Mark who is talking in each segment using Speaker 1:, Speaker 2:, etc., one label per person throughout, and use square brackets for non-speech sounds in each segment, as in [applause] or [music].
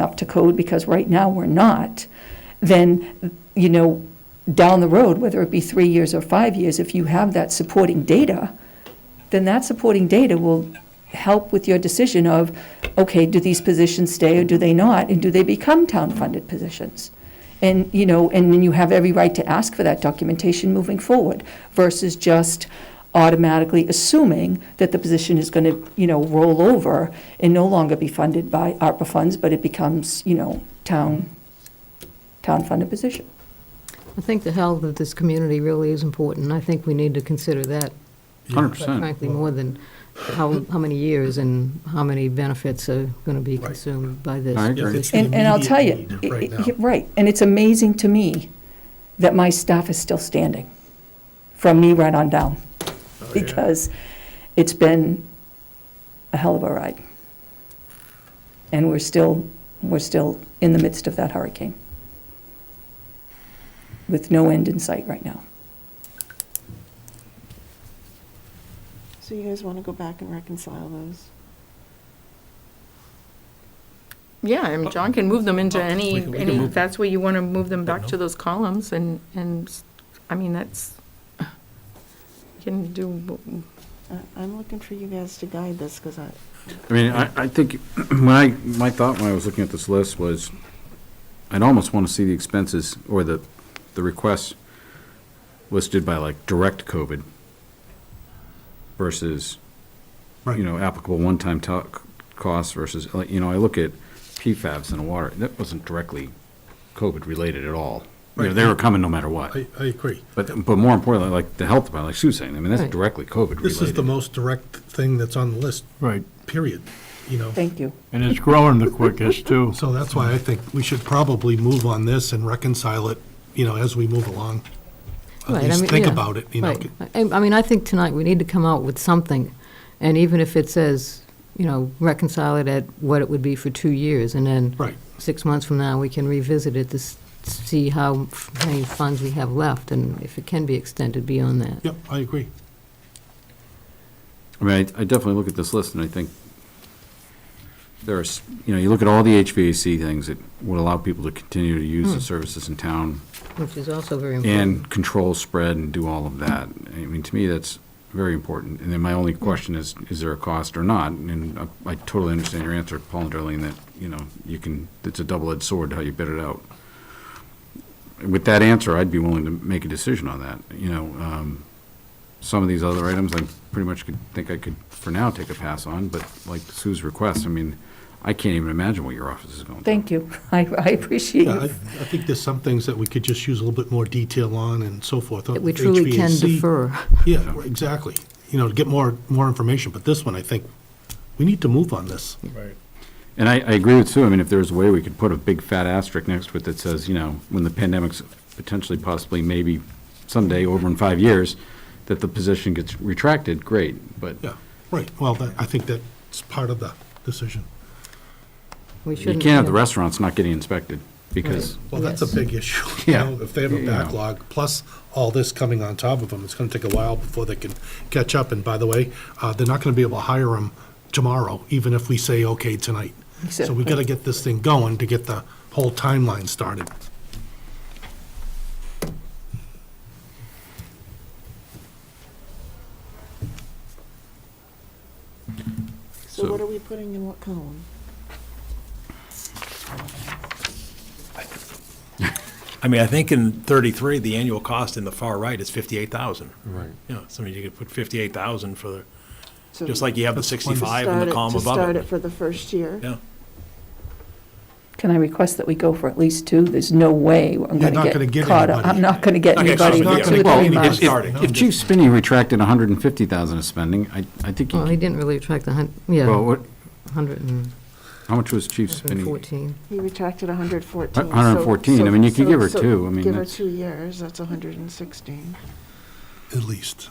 Speaker 1: up to code, because right now we're not, then, you know, down the road, whether it be three years or five years, if you have that supporting data, then that supporting data will help with your decision of, okay, do these positions stay or do they not? And do they become town-funded positions? And, you know, and then you have every right to ask for that documentation moving forward versus just automatically assuming that the position is going to, you know, roll over and no longer be funded by ARPA funds, but it becomes, you know, town, town-funded position.
Speaker 2: I think the health of this community really is important. I think we need to consider that,
Speaker 3: Hundred
Speaker 2: quite
Speaker 3: percent.
Speaker 2: frankly, more than how, how many years and how many benefits are going to be
Speaker 4: Right.
Speaker 2: consumed by this.
Speaker 3: I agree.
Speaker 4: Yes, it's the
Speaker 1: And, and I'll tell you,
Speaker 4: immediate need
Speaker 1: i-
Speaker 4: right
Speaker 1: i-
Speaker 4: now.
Speaker 1: right, and it's amazing to me that my staff is still standing, from me right on down,
Speaker 4: Oh, yeah.
Speaker 1: because it's been a hell of a ride. And we're still, we're still in the midst of that hurricane, with no end in sight right now.
Speaker 5: So you guys want to go back and reconcile those?
Speaker 6: Yeah, I mean, John can move them into any,
Speaker 4: Oh. We can- we can
Speaker 6: any,
Speaker 4: move
Speaker 6: if that's where you want to move them back
Speaker 4: no.
Speaker 6: to those columns and, and, s- I mean, that's, you can do, w-
Speaker 5: Uh, I'm looking for you guys to guide this because I,
Speaker 3: I mean, I, I think, when I, my thought when I was looking at this list was, I'd almost want to see the expenses or the, the requests listed by like direct COVID versus, you know, applicable one-time to- costs versus, like, you know, I look at PFABs in the water, that wasn't directly COVID-related at all. You know,
Speaker 4: Right.
Speaker 3: They were coming no matter what.
Speaker 4: I, I agree.
Speaker 3: But, but more importantly, like the health department, like Sue was saying, I mean, that's
Speaker 2: Right.
Speaker 3: directly COVID-related.
Speaker 4: This is the most direct thing that's on the list,
Speaker 7: Right,
Speaker 4: period, you know?
Speaker 1: Thank you.
Speaker 7: and it's growing the quickest, too.
Speaker 4: So that's why I think we should probably move on this and reconcile it, you know, as we move along.
Speaker 2: Right,
Speaker 4: At
Speaker 2: I
Speaker 4: least
Speaker 2: mean,
Speaker 4: think
Speaker 2: yeah,
Speaker 4: about it, you know?
Speaker 2: right. I I mean, I think tonight we need to come out with something, and even if it says, you know, reconcile it at what it would be for two years, and then
Speaker 4: Right.
Speaker 2: six months from now, we can revisit it to s- see how f- many funds we have left, and if it can be extended beyond that.
Speaker 4: Yep, I agree.
Speaker 3: I mean, I I definitely look at this list and I think there's, you know, you look at all the HVAC things that would allow people to continue to use the services in town
Speaker 2: Which is also very important.
Speaker 3: and control spread and do all of that. I mean, to me, that's very important. And then my only question is, is there a cost or not? And I- I totally understand your answer, Paul and Darlene, that, you know, you can, it's a double-edged sword how you bid it out. With that answer, I'd be willing to make a decision on that, you know. um, Some of these other items, I pretty much could, think I could, for now, take a pass on, but like Sue's request, I mean, I can't even imagine what your office is going through.
Speaker 1: Thank you. [laughs] I, I appreciate
Speaker 4: Yeah, I, I
Speaker 1: you.
Speaker 4: think there's some things that we could just use a little bit more detail on and so forth.
Speaker 2: That we truly can
Speaker 4: HVAC.
Speaker 2: defer.
Speaker 4: Yeah, right, exactly. You know, to get more, more information, but this one, I think, we need to move on this.
Speaker 7: Right.
Speaker 3: And I, I agree with Sue. I mean, if there was a way we could put a big fat asterisk next to it that says, you know, when the pandemic's potentially, possibly, maybe someday, over in five years, that the position gets retracted, great, but
Speaker 4: Yeah, right. Well, that, I think that's part of the decision.
Speaker 2: We
Speaker 3: you
Speaker 2: shouldn't.
Speaker 3: can't have the
Speaker 2: yeah.
Speaker 3: restaurants not getting inspected, because,
Speaker 4: Well, that's a
Speaker 2: Yes.
Speaker 4: big issue. [laughs] you
Speaker 3: Yeah.
Speaker 4: know, If they have a
Speaker 3: You know.
Speaker 4: backlog, plus all this coming on top of them, it's going to take a while before they can catch up. And by the way, uh, they're not going to be able to hire them tomorrow, even if we say okay tonight. So we
Speaker 1: Exactly.
Speaker 4: got to get this thing going to get the whole timeline started.
Speaker 5: so what are we putting in what column?
Speaker 8: I mean, I think in 33, the annual cost in the far right is 58,000. Right. You know, so I mean, you could put 58,000 for, the
Speaker 5: So
Speaker 8: just like you have the
Speaker 5: to
Speaker 8: 65 in
Speaker 5: start
Speaker 8: the
Speaker 5: it-
Speaker 8: column
Speaker 5: To start
Speaker 8: above
Speaker 5: it
Speaker 8: it.
Speaker 5: for the first year?
Speaker 8: Yeah,
Speaker 1: Can I request that we go for at least two? There's no way I'm
Speaker 4: You're
Speaker 1: going
Speaker 4: not
Speaker 1: to
Speaker 4: gonna
Speaker 1: get
Speaker 4: get
Speaker 1: caught up.
Speaker 4: anybody.
Speaker 1: I'm not going to get
Speaker 8: Okay, so
Speaker 1: anybody
Speaker 8: it's
Speaker 1: for two
Speaker 8: not
Speaker 1: or
Speaker 8: gonna
Speaker 1: three
Speaker 8: be
Speaker 1: months.
Speaker 8: possible.
Speaker 4: Starting.
Speaker 3: if Chief Spinney retracted hundred and fifty thousand of spending, I, I think,
Speaker 2: Well, he
Speaker 3: you-
Speaker 2: didn't really attract the hun, yeah,
Speaker 3: well, what,
Speaker 2: 114.
Speaker 3: how much was Chief Spinney?
Speaker 5: He retracted 114.
Speaker 3: A- 114.
Speaker 5: so-
Speaker 3: I mean, you could
Speaker 5: so-
Speaker 3: give her
Speaker 5: so
Speaker 3: two. I mean,
Speaker 5: Give her
Speaker 3: that's-
Speaker 5: two years, that's 116.
Speaker 4: At least.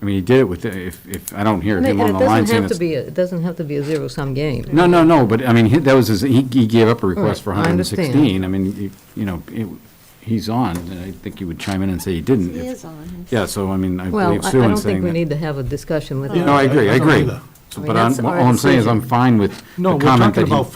Speaker 3: I mean, he did it with, the- if, if, I don't hear
Speaker 2: And it
Speaker 3: him
Speaker 2: and
Speaker 3: on
Speaker 2: it
Speaker 3: the line
Speaker 2: doesn't
Speaker 3: saying
Speaker 2: have to
Speaker 3: it's.
Speaker 2: be, a- it doesn't have to be a zero-sum game.
Speaker 3: No, no, no, but I mean, he- that was his, he, he gave up a request
Speaker 2: Right,
Speaker 3: for
Speaker 2: I understand.
Speaker 3: 116. I mean, you- you know, it- he's on, and I think you would chime in and say he didn't.
Speaker 5: He
Speaker 3: Hmm, if-
Speaker 5: is on.
Speaker 3: Yeah, so I mean, I
Speaker 2: Well,
Speaker 3: believe
Speaker 2: I I
Speaker 3: Sue in
Speaker 2: don't think
Speaker 3: saying
Speaker 2: we
Speaker 3: that.
Speaker 2: need to have a discussion with
Speaker 5: Yeah,
Speaker 2: him.
Speaker 3: No, I agree, I
Speaker 4: I don't
Speaker 3: agree.
Speaker 4: either.
Speaker 3: So,
Speaker 2: I mean,
Speaker 3: But I'm-
Speaker 2: that's our
Speaker 3: all I'm saying is I'm
Speaker 2: decision.
Speaker 3: fine with
Speaker 4: No,
Speaker 3: the
Speaker 4: we're
Speaker 3: comment
Speaker 4: talking
Speaker 3: that he
Speaker 4: about